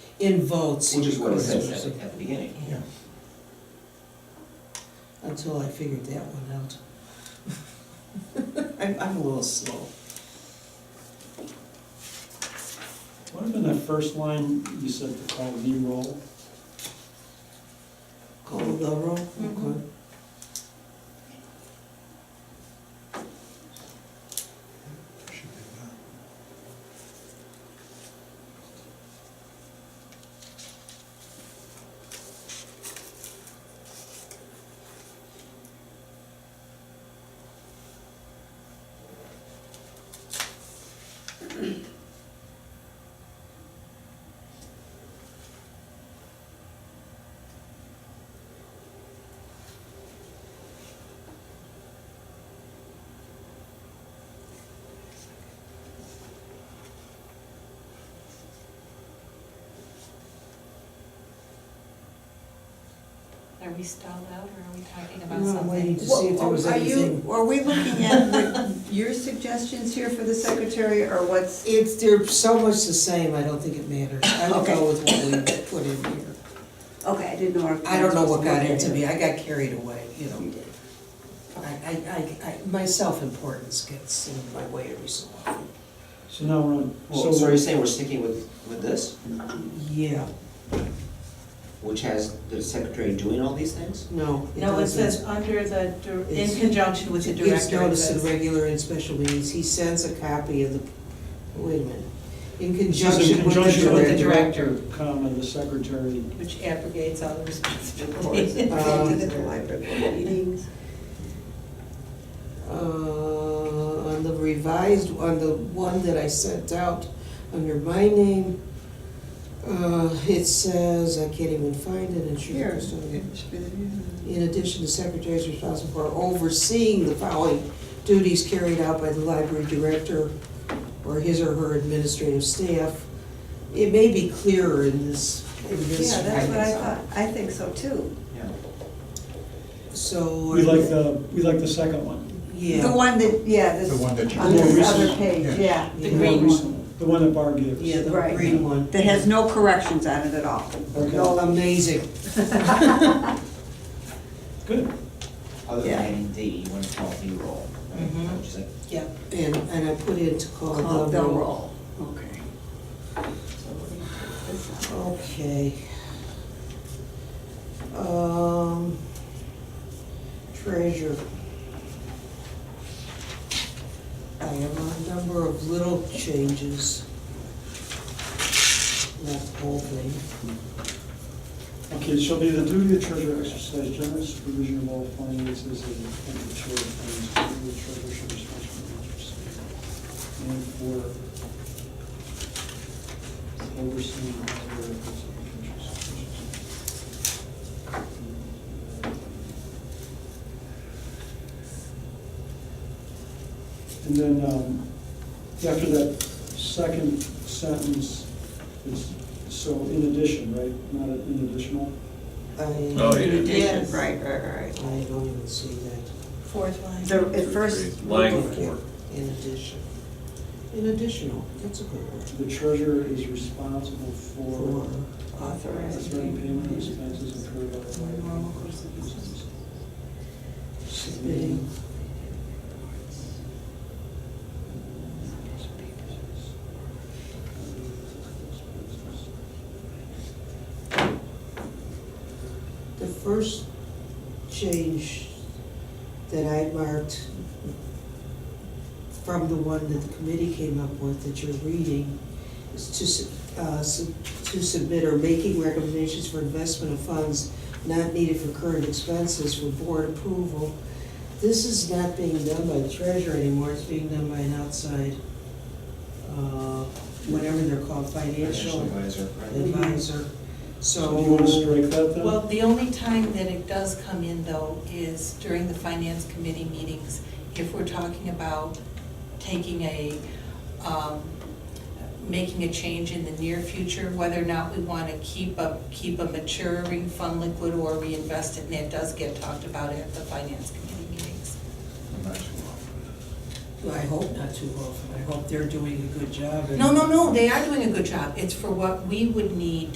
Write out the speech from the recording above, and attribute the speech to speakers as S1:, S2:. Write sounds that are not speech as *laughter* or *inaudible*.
S1: in votes.
S2: which is what it
S1: goes
S2: says
S1: through.
S2: at the- at the beginning.
S1: Yeah. Until I figured that one out. *laughs* I'm, I'm a little slow.
S3: What if in that first line, you said to call the roll?
S1: Call the roll, okay.
S4: Mhm. Are we stalled out or are we talking about
S1: No, I'm
S4: something?
S1: waiting to
S5: Well,
S1: see if there was
S5: are you-
S1: anything.
S5: Are we looking at what your suggestions here for the secretary, or what's,
S1: It's, they're so much the same, I don't think it matters. I would
S5: Okay.
S1: go with what we put in here.
S5: okay, I didn't know. our-
S1: I don't know what got into
S5: You
S1: me, *laughs* I got carried away, you know.
S5: did.
S1: I, I, I, I- my self-importance gets in my way every so often.
S3: So now we're on,
S2: Well, so
S3: so
S2: you're saying we're sticking with, with this,
S1: Yeah,
S2: which has the secretary doing all these things?
S1: no, it
S4: No, it
S1: doesn't.
S4: says under the, dir-
S1: It's-
S4: in conjunction with the director.
S1: Gives notice
S4: it
S1: in
S4: says.
S1: regular and special meetings, he sends a copy of the, wait a minute, in
S3: Just in
S1: conjunction with the
S3: conjunction with the
S1: director.
S3: director, comma, the secretary.
S4: Which abrogates all the
S5: *laughs*
S2: course.
S4: responsibility.
S1: Um,
S5: Attended the library board meetings.
S1: Uh, on the revised, on the one that I sent out under my name, uh, it says, I can't even find it, it should
S5: Here.
S1: be somewhere. In addition, the secretary is responsible for overseeing the following duties carried out by the library director or his or her administrative staff. It may be clearer in this, in this.
S5: Yeah, that's what I
S1: guidance.
S5: thought, I think so too.
S2: Yeah.
S1: So. uh,
S3: We like the, we like the second one.
S5: The
S1: Yeah,
S5: one that, yeah, this,
S6: The one that you-
S5: on this
S3: The more
S5: other
S3: recent,
S5: page, yeah.
S1: The
S3: more
S1: green
S3: recent The one that Barb gave us.
S1: yeah, the
S5: Right.
S1: green one.
S5: That has no corrections on it at all.
S1: Oh,
S3: Okay,
S1: amazing.
S3: good.
S2: Other
S5: Yeah.
S2: than D, you want to call the roll, right? Is that what you said?
S1: Yeah. And, and I put in to call
S5: Call
S1: the
S5: the
S1: roll.
S5: roll, okay. So we're gonna take this out.
S1: Okay. Um, treasure. I have a number of little changes. Not the whole thing.
S3: Okay, shall be the duty of treasurer exercise general supervision of all finances and the chair of finance, the treasurer should be responsible for the interest and for overseeing the other areas of interest. And then, um, after that second sentence, is, so in addition, right, not in additional?
S1: I,
S6: Oh,
S1: I
S6: yeah.
S5: In addition,
S4: Yes.
S5: right, right, right.
S1: don't even see that
S4: Fourth line.
S5: The, at first.
S6: Line four.
S1: in addition. In additional, that's a good word.
S3: The treasurer is responsible for
S5: Authorized.
S3: authorizing payment of expenses incurred by the
S4: Normal
S3: library.
S4: course of business.
S3: Submitting.
S1: The first change that I marked from the one that the committee came up with that you're reading is to, su- uh, su- to submit or making recommendations for investment of funds not needed for current expenses for board approval. This is not being done by the treasurer anymore, it's being done by an outside, uh, whatever they're called,
S2: Financial
S1: financial
S2: advisor, right?
S1: advisor.
S3: So do you want to
S1: So,
S3: strike that then?
S4: Well, the only time that it does come in though is during the finance committee meetings. If we're talking about taking a, um, making a change in the near future, whether or not we want to keep a, keep a maturing fund liquid or reinvest it, and that does get talked about at the finance committee meetings.
S2: Not too often.
S1: I hope not too often, I hope they're doing a good job. and-
S4: No, no, no, they are doing a good job. It's for what we would need